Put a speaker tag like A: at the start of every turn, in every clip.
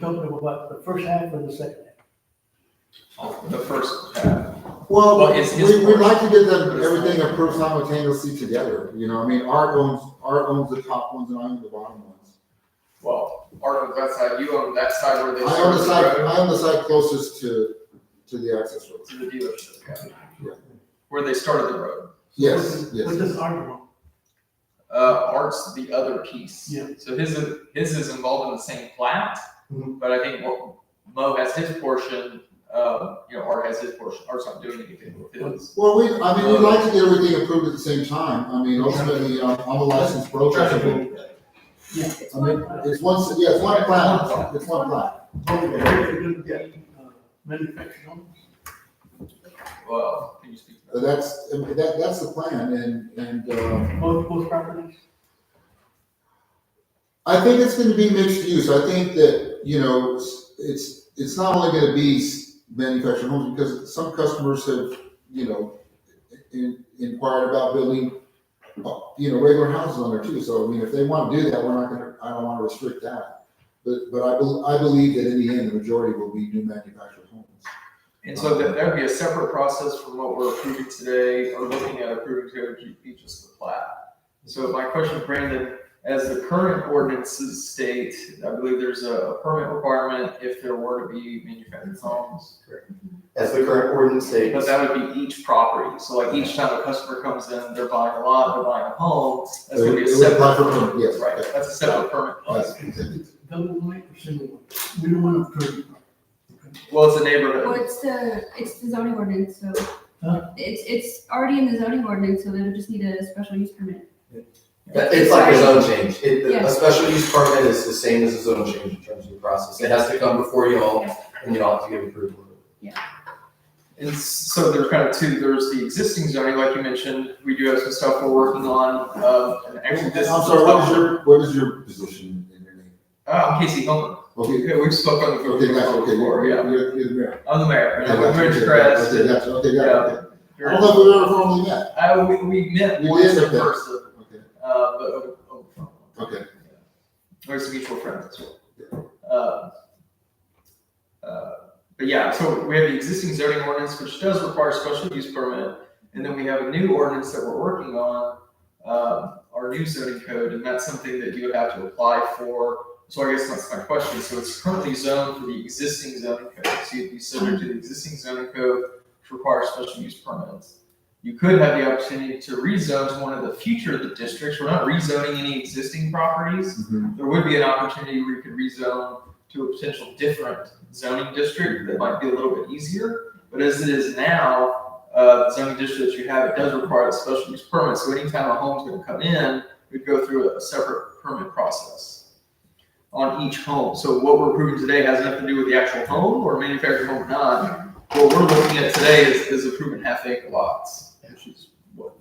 A: talking about the first half or the second half?
B: Oh, The first half,
C: Well,
B: Well, it's his
C: we, we'd
B: portion.
C: like to get them,
B: But it's
C: everything
B: not-
C: approved simultaneously together, you know, I mean, Art owns, Art owns the top ones and I own the bottom ones.
B: well, Art owns that side, you own that side where
C: I
B: they
C: own
B: serve
C: the
B: the
C: side,
B: road
C: I own the side closest to, to the access roads.
B: to the dealership, yeah.
C: Yeah.
B: Where they started the road.
C: Yes,
A: What
C: yes,
A: does Art want?
B: Uh, Art's the other piece.
A: Yeah.
B: So his, is- his is involved in the same plat,
C: Mm-hmm.
A: Mhm.
B: but I think what Mo has his portion, uh, you know, Art has his portion, Art's not doing anything with his.
C: well, we, I mean, we'd like to get everything approved at the same time, I mean, ultimately, I'm I'm a licensed broker. I mean,
D: It's one plat.
C: it's one, s- yeah, it's one plat, it's one plat.
A: Yeah. uh, Manufactured on?
B: Well, can you speak?
C: Uh, That's, I mean, that, that's the plan, and, and, uh,
A: both, both properties?
C: I think it's gonna be mixed use, I think that, you know, it's- it's, it's not only gonna be s- manufactured homes, because some customers have, you know, in, inquired about building, uh, you know, regular houses on there too, so, I mean, if they wanna do that, we're not gonna, I don't wanna restrict that. But, but I, bel- I believe that in the end, the majority will be new manufactured homes.
B: And so that, that'd be a separate process from what we're approving today, or looking at approving today, which would be just the plat. So my question, Brandon, as the current ordinances state, I believe there's a permit requirement if there were to be manufactured homes.
E: as the current ordinance
B: But
E: states.
B: that would be each property, so like each time a customer comes in, they're buying a lot, they're buying a home, that's gonna be a
C: It would apply
B: separate.
C: for permit, Yes.
B: Right, that's a separate permit.
C: Yes.
A: Double wide or single wide? We don't want to prove.
B: Well, it's a
D: Well,
B: neighborhood,
D: it's the, it's the zoning ordinance, so
A: Huh?
D: it's, it's already in the zoning ordinance, so they would just need a special use permit.
E: It's like a zone change. It,
D: Yeah.
E: a special use permit is the same as a zone change in terms of the process. It has to come before you all and you all have to give approval.
B: and s- so there's kind of two, there's the existing zoning, like you mentioned, we do have some stuff we're working on, uh, and actually
C: I'm
B: this.
C: sorry, what is your, what is your position in your name?
B: Uh, I'm Casey Homer,
C: Okay,
B: yeah, we've spoken on the phone
C: okay, gotcha, okay,
B: before, yeah,
C: you're, you're, you're the mayor.
B: I'm the mayor, and
C: Yeah,
B: I'm with
C: gotcha,
B: Rich
C: okay,
B: Crest.
C: Okay, gotcha, okay,
B: Yeah.
C: got it, okay. I don't know if we ever formally met.
B: Uh, we, we met
C: We
B: once
C: did,
B: in
C: okay.
B: person,
C: Okay,
B: uh, but over, over the phone.
C: okay.
B: There's mutual friends as well. Uh, uh, But yeah, so we have the existing zoning ordinance, which does require special use permit, and then we have a new ordinance that we're working on, um, our new zoning code, and that's something that you would have to apply for. So I guess that's my question, so it's currently zoned for the existing zoning code, so you'd be subject to the existing zoning code, which requires special use permits. You could have the opportunity to rezone to one of the future of the districts, we're not rezoning any existing properties,
C: Mhm.
B: there would be an opportunity where you could rezone to a potential different zoning district that might be a little bit easier. But as it is now, uh, the zoning district that you have, it does require a special use permit, so anytime a home's gonna come in, we'd go through a separate permit process on each home. So what we're approving today has nothing to do with the actual home or manufactured home or not. What we're looking at today is, is approving half acre lots, which is what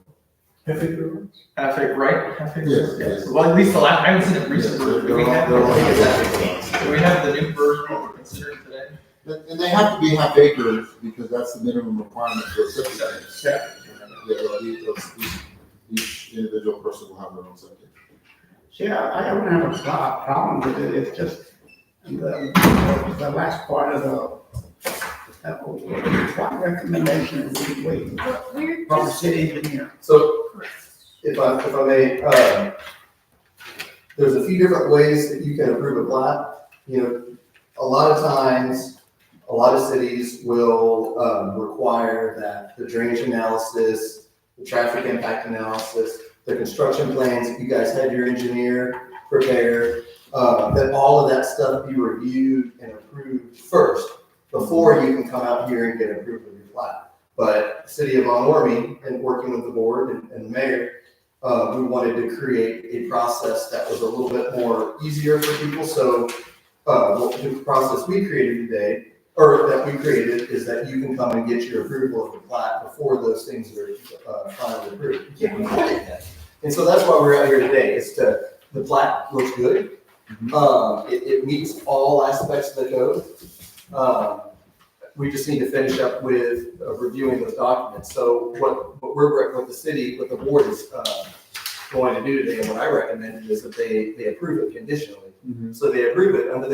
A: Half acre lots?
B: Half acre, right? Half acre.
C: Yes,
B: Yeah.
C: yes.
B: Well, at least the last, I haven't seen it recently.
C: Yeah,
B: Do we
C: they're all-
B: have,
C: they're all-
B: do we have the new version that we're considering today?
C: And, and they have to be half acres because that's the minimum requirement for a septic tank.
B: Yeah.
C: Yeah, they'll be- they'll- each, each individual person will have their own septic.
F: See, I, I don't have a pro- problem with it, it's just the, the last part of the, that was- what recommendation are we waiting
D: But we're
F: from the
D: just,
F: city engineer?
E: So if I, if I may, uh, there's a few different ways that you can approve a plat. You know, a lot of times, a lot of cities will, um, require that the drainage analysis, the traffic impact analysis, the construction plans, if you guys had your engineer prepared, uh, that all of that stuff be reviewed and approved first before you can come out here and get approved of your plat. But City of Von Ormy, and working with the board and, and mayor, uh, we wanted to create a process that was a little bit more easier for people. So, uh, what the process we created today, or that we created, is that you can come and get your approval of the plat before those things are, uh, finally approved. You can't really do that. And so that's why we're out here today, is to, the plat looks good.
C: Mhm.
E: Um, it, it meets all aspects of the code. Um, we just need to finish up with uh, reviewing those documents. So what, what we're, what the city, what the board is, uh, going to do today, and what I recommended is that they, they approve it conditionally. So they approve it under the